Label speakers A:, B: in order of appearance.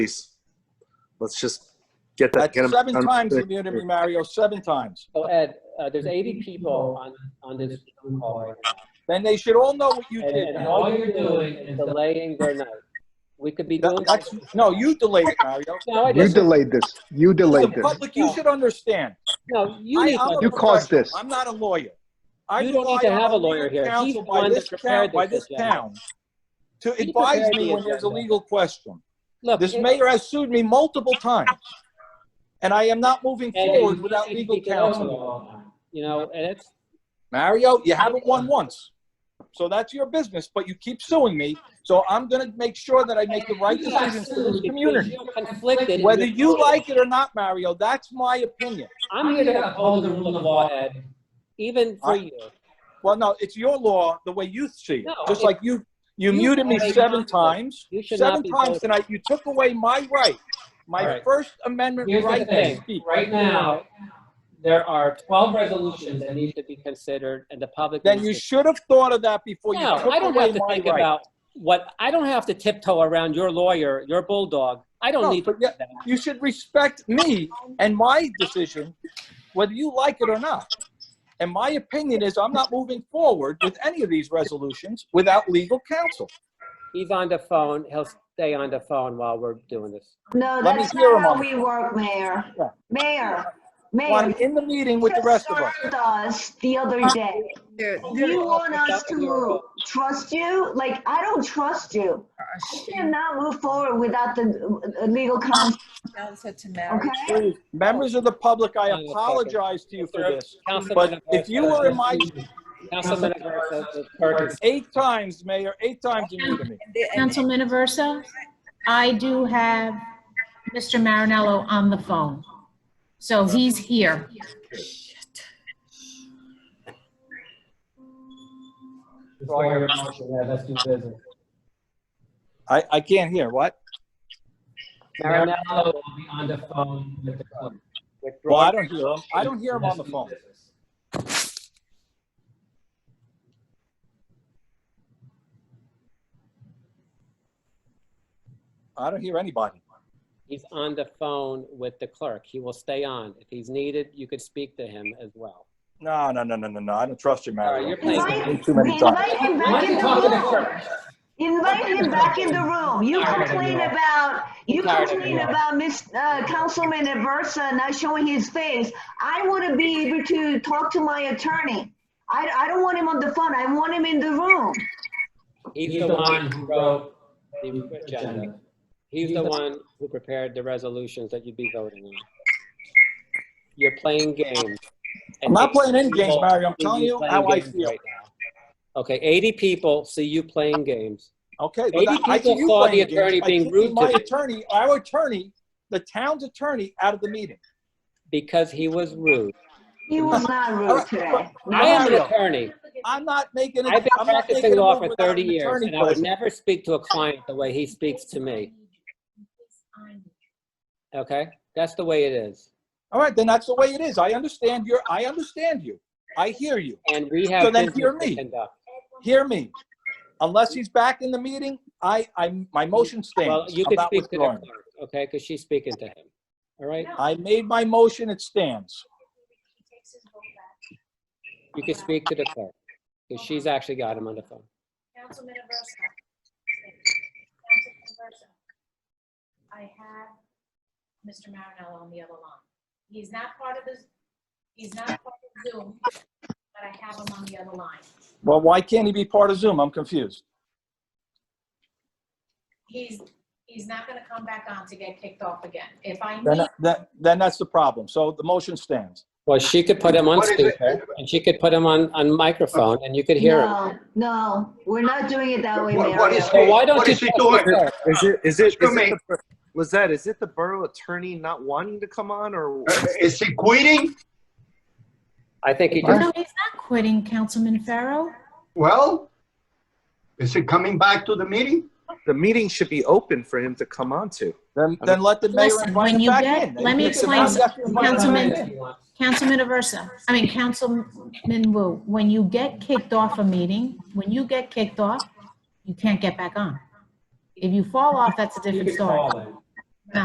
A: please. Let's just get that.
B: That's
A: get 'em
B: seven
A: done.
B: times you muted me, Mario, seven times.
C: So Ed, uh, there's 80 people on, on this Zoom call right now.
B: Then they should all know what you
C: And,
B: did.
C: and
B: Mario.
C: all you're doing is delaying their night. We could be doing.
B: That- That's, no, you delayed it, Mario.
C: No, I
D: You
C: just,
D: delayed this. You delayed
B: The
D: this.
B: public, you should understand.
C: no, you
B: I-
C: need,
B: I'm a
C: to-
D: You caused
B: professional.
D: this.
B: I'm not a lawyer. I
C: You don't need
B: rely
C: to have
B: on
C: a lawyer
B: legal
C: here.
B: counsel
C: He's the
B: by
C: one
B: this
C: that prepared
B: town- By
C: this
B: this
C: agenda.
B: town, to
C: He
B: advise
C: prepared
B: me
C: the
B: when there's a
C: agenda.
B: legal question.
C: look,
B: This
C: it-
B: mayor has sued me multiple times, and I am not moving
C: Ed,
B: forward
C: you
B: without
C: need to
B: legal
C: keep it open
B: counsel.
C: all the time. You know, and it's,
B: Mario, you haven't won once. So that's your business, but you keep suing me. So I'm going to make sure that I make the right
C: you got
B: decisions for
C: sued
B: this
C: because
B: community.
C: you're conflicted. and
B: Whether
C: you're-
B: you like it or not, Mario, that's my opinion.
C: I'm here to uphold the rule of law, Ed, even for
B: I-
C: you.
B: Well, no, it's your law, the way you see it.
C: No,
B: Just
C: it-
B: like you, you
C: you
B: muted me
C: are a
B: seven
C: monster.
B: times.
C: You should not
B: Seven
C: be
B: times
C: voting.
B: tonight, you took away my right,
C: All
B: my
C: right.
B: First Amendment
C: Here's the
B: right to
C: thing,
B: speak.
C: right now, there are 12 resolutions that need to be considered and the public.
B: Then
C: needs
B: you
C: to-
B: should have thought of that before you
C: No,
B: took
C: I don't have
B: away
C: to
B: my
C: think
B: right.
C: about what, I don't have to tiptoe around your lawyer, your bulldog. I
B: No,
C: don't need to
B: but yeah-
C: do that.
B: You should respect me and my decision, whether you like it or not. And my opinion is I'm not moving forward with any of these resolutions without legal counsel.
C: He's on the phone. He'll stay on the phone while we're doing this.
E: No,
B: Let me
E: that's
B: hear
E: not
B: 'em
E: how
B: all.
E: we work, Mayor.
B: Yeah.
E: Mayor,
B: Well, I'm
E: Mayor.
B: in the meeting with the
E: just
B: rest of us.
E: served us the other day.
F: They're, they're,
E: You want us to trust you? Like, I don't trust you. I cannot move forward without the uh, legal counsel,
F: Michelle said to Mary.
E: okay?
B: Please, Members of the public, I
C: Hang on a second.
B: apologize to you for this.
C: Councilman
B: But if you were in my,
C: Councilman Aversa, the clerk is-
B: eight times, Mayor, eight times you muted me.
F: And they- and-
G: Councilman Aversa, I do have Mr. Marinello on the phone. So he's here.
C: Before your motion, Ed, let's do business.
B: I, I can't hear, what?
C: Marinello will be on the phone with the clerk.
B: Well, I don't hear him. I don't hear him on the phone. I don't hear anybody.
C: He's on the phone with the clerk. He will stay on. If he's needed, you could speak to him as well.
B: No, no, no, no, no, no, I don't trust you,
C: All right,
B: Mario.
C: you're playing
B: You've
E: Invite
B: been Too many times.
E: invite him
C: Why
E: back
C: don't
E: in
C: you
E: the
C: talk to the
E: room.
C: clerk?
E: Invite him back in the room. You
C: Tired of
E: complain
C: you all.
E: about, you
C: Tired of
E: complain
C: you all.
E: about Miss, uh, Councilman Aversa not showing his face. I want to be able to talk to my attorney. I, I don't want him on the phone. I want him in the room.
C: He's the one who wrote the agenda. He's the one who prepared the resolutions that you'd be voting on. You're playing games.
B: I'm not playing any games, Mario. I'm telling you how I
C: Playing games
B: feel.
C: right now. Okay, 80 people see you playing games.
B: Okay. well,
C: Maybe
B: that- I see
C: people
B: you
C: saw
B: playing
C: the attorney
B: games by
C: being
B: kicking
C: rude to
B: My
C: you.
B: attorney, our attorney, the town's attorney out of the meeting.
C: because he was rude.
E: He was not rude today.
C: I am an
B: Mario.
C: attorney.
B: I'm not making. it-
C: I've been
B: I'm not making
C: practicing
B: a
C: law
B: move
C: for
B: without
C: 30
B: an
C: years,
B: attorney
C: and I would
B: present.
C: never speak to a client the way he speaks to me, okay? That's the way it is.
B: All right, then that's the way it is. I understand your, I understand you. I hear you.
C: And we
B: So
C: have
B: then
C: business
B: hear
C: to
B: me.
C: conduct.
B: Hear me. Unless he's back in the meeting, I, I, my motion
C: Well,
B: stands.
C: you
B: I'm
C: could
B: not
C: speak to the
B: withdrawing.
C: clerk, okay, because she's speaking to him, all right?
B: I made my motion, it stands.
C: You could speak to the clerk, because she's actually got him on the phone.
H: Councilman Aversa. Councilman Aversa. I have Mr. Marinello on the other line. He's not part of this, he's not part of Zoom, but I have him on the other line.
B: Well, why can't he be part of Zoom? I'm confused.
H: He's, he's not gonna come back on to get kicked off again. If I
B: Then,
H: need,
B: then, then that's the problem. So the motion stands.
C: Well, she could put him on
D: What is it?
C: speaker, and she could put him on, on microphone, and you could hear him.
E: No, no, we're not doing it that way,
D: What- what
E: Mario.
D: is-
C: So why don't
D: What
C: you
D: is she
C: talk to the
D: doing?
C: clerk?
A: Is it, is it, is it
D: Excuse me.
A: the- Lizette, is it the borough attorney not wanting to come on or?
D: Uh, Is he quitting?
C: I think he just,
G: No, he's not quitting, Councilman Farrow.
D: Well, is he coming back to the meeting?
A: The meeting should be open for him to come on to.
B: Then, then let the mayor
G: Listen,
B: invite
G: when
B: him
G: you
B: back
G: get-
B: in.
G: let me
B: It's
G: explain
B: not
G: something,
B: that you invite him
G: Councilman.
B: back in.
G: Councilman Aversa, I mean, Councilman Wu, when you get kicked off a meeting, when you get kicked off, you can't get back on. If you fall off, that's a
C: you
G: different
C: could
G: story.
C: call him.